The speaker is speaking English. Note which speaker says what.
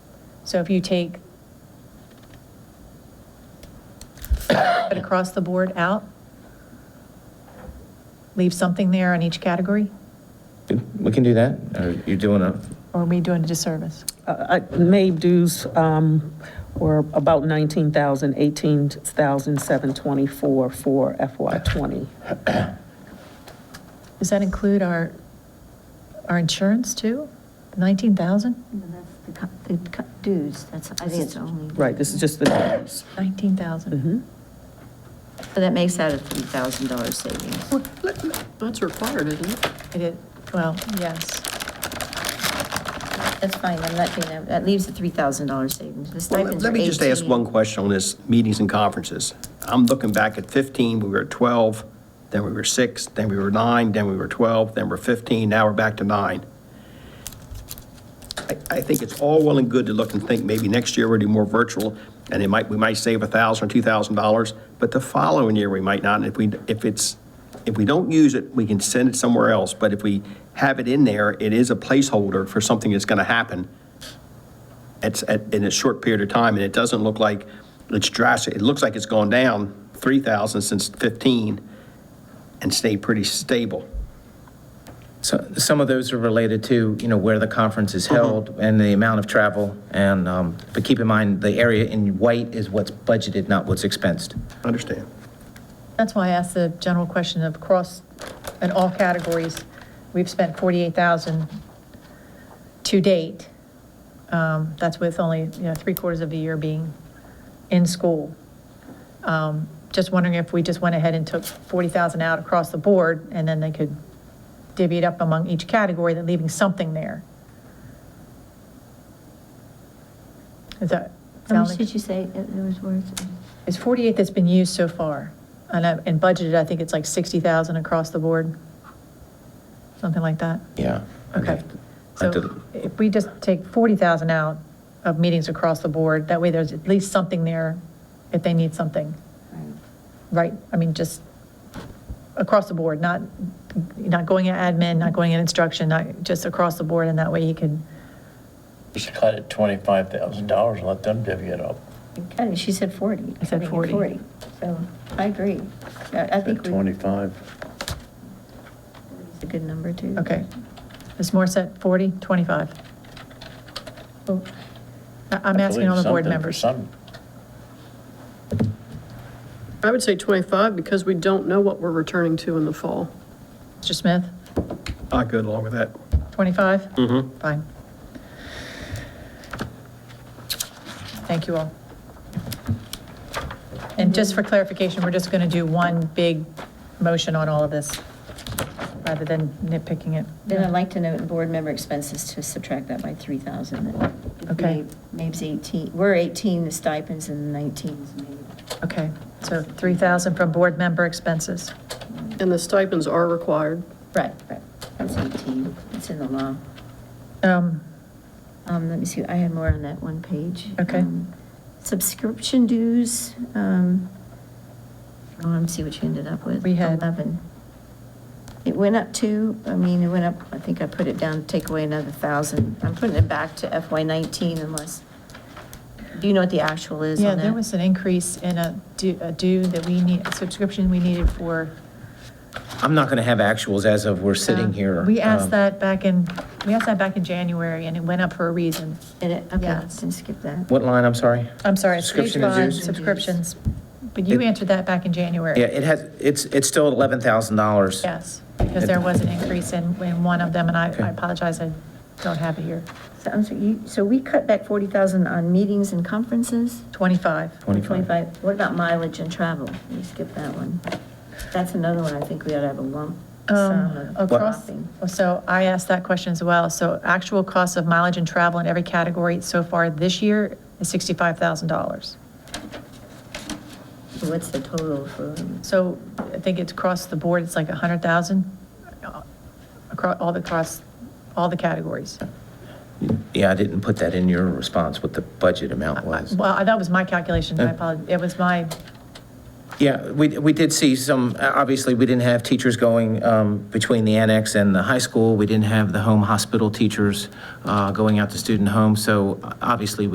Speaker 1: So if you take, put across the board out, leave something there on each category,
Speaker 2: We can do that, or you're doing a,
Speaker 1: or are we doing a disservice?
Speaker 3: Uh, uh, Made dues um, were about 19,000, 18,724 for FY '20.
Speaker 1: Does that include our, our insurance too? The 19,000?
Speaker 4: No, that's the co- the co- dues, that's, I think it's only.
Speaker 3: Right, this is just the dues.
Speaker 1: 19,000.
Speaker 3: Mhm.
Speaker 4: So that makes that a $3,000 savings.
Speaker 5: Well, let- let- That's required, isn't it?
Speaker 1: It is, well, yes.
Speaker 4: That's fine, I'm not being, that that leaves a $3,000 savings. The
Speaker 6: Well,
Speaker 4: stipends
Speaker 6: Let
Speaker 4: are
Speaker 6: me just ask
Speaker 4: 18.
Speaker 6: one question on this, meetings and conferences. I'm looking back at 15, we were at 12, then we were 6, then we were 9, then we were 12, then we're 15, now we're back to 9. I- I think it's all well and good to look and think, maybe next year we'll do more virtual, and it might, we might save $1,000 or $2,000, but the following year we might not, and if we, if it's, if we don't use it, we can send it somewhere else, but if we have it in there, it is a placeholder for something that's going to happen it's at, in a short period of time, and it doesn't look like it's drastic. It looks like it's gone down 3,000 since 15 and stayed pretty stable.
Speaker 2: so, some of those are related to, you know, where the conference
Speaker 1: Mm-hmm.
Speaker 2: is held and the amount of travel, and, um, but keep in mind, the area in white is what's budgeted, not what's expensed.
Speaker 6: Understand?
Speaker 1: That's why I asked the general question of across, in all categories, we've spent 48,000 to date. Um, That's with only, you know, three quarters of the year being in school. Um, Just wondering if we just went ahead and took 40,000 out across the board, and then they could divvy it up among each category, then leaving something there. Is that?
Speaker 4: How
Speaker 1: sound
Speaker 4: much
Speaker 1: like-
Speaker 4: did you say it it was worth?
Speaker 1: it's 48 that's been used so far, and, I- and budgeted, I think it's like 60,000 across the board, something like that.
Speaker 2: Yeah. I'd
Speaker 1: Okay.
Speaker 2: have to- I'd have
Speaker 1: So
Speaker 2: to-
Speaker 1: if we just take 40,000 out of meetings across the board, that way there's at least something there if they need something, right? I mean, just across the board, not, not going in admin, not going in instruction, not, just across the board, and that way you can,
Speaker 7: Just cut it twenty-five thousand dollars and let them divvy it up.
Speaker 4: Right. She said 40.
Speaker 1: I said
Speaker 4: think it's
Speaker 1: 40.
Speaker 4: So I agree. I I think we-
Speaker 7: Twenty-five.
Speaker 4: it's a good number, too.
Speaker 1: okay. Ms. Morse at 40, 25?
Speaker 4: Well,
Speaker 1: Oh, I- I'm asking all the board members.
Speaker 7: Something for some-
Speaker 5: I would say 25 because we don't know what we're returning to in the fall.
Speaker 1: Mr. Smith,
Speaker 6: Not good along with that.
Speaker 1: 25? Mm-hmm. Fine. Thank you all. And just for clarification, we're just going to do one big motion on all of this, rather than nitpicking it.
Speaker 4: Then I'd like to note board member expenses to subtract that by 3,000. and it'd be
Speaker 1: Okay.
Speaker 4: Maybe 18, we're 18, the stipends, and 19 is maybe.
Speaker 1: Okay, so 3,000 from board member expenses.
Speaker 5: And the stipends are required.
Speaker 4: Right, right, that's 18, it's in the law.
Speaker 1: Um,
Speaker 4: Um, let me see, I had more on that one page.
Speaker 1: Okay.
Speaker 4: Um, Subscription dues, um, I want to see what you ended up with.
Speaker 1: We had-
Speaker 4: 11. It went up to, I mean, it went up, I think I put it down, to take away another 1,000. I'm putting it back to FY '19 unless, do you know what the actual is on
Speaker 1: Yeah,
Speaker 4: that?
Speaker 1: there was an increase in a due a due that we need, a subscription we needed for.
Speaker 2: I'm not going to have actuals as of we're sitting here.
Speaker 1: Uh, We
Speaker 2: um,
Speaker 1: asked that back in, we asked that back in January, and it went up for a reason.
Speaker 4: And it, okay,
Speaker 1: Yes.
Speaker 4: then skip that.
Speaker 2: What line, I'm sorry?
Speaker 1: I'm sorry, it's page
Speaker 2: Subscription and
Speaker 1: five,
Speaker 2: dues?
Speaker 1: subscriptions. But you
Speaker 2: It-
Speaker 1: answered that back in January.
Speaker 2: Yeah, it has, it's, it's still at $11,000.
Speaker 1: Yes, because there was an increase in, in one of them, and I
Speaker 2: Okay.
Speaker 1: I apologize, I don't have it here.
Speaker 4: So, I'm sorry, you, so we cut back 40,000 on meetings and conferences?
Speaker 1: 25.
Speaker 2: 25.
Speaker 4: What about mileage and travel? We skip that one. That's another one I think we ought to have a lump sum
Speaker 1: Um,
Speaker 4: of
Speaker 1: Across,
Speaker 4: dropping.
Speaker 1: so I asked that question as well. So actual cost of mileage and travel in every category so far this year is $65,000.
Speaker 4: So What's the total for,
Speaker 1: So I think it's across the board, it's like 100,000 across, uh, all the, across, all the categories.
Speaker 2: Yeah, I didn't put that in your response, what the budget amount was.
Speaker 1: Well, that was my calculation, I apologize, it was my,
Speaker 2: Yeah, we, we did see some, obviously, we didn't have teachers going um, between the annex and the high school. We didn't have the home hospital teachers uh, going out to student homes. So obviously,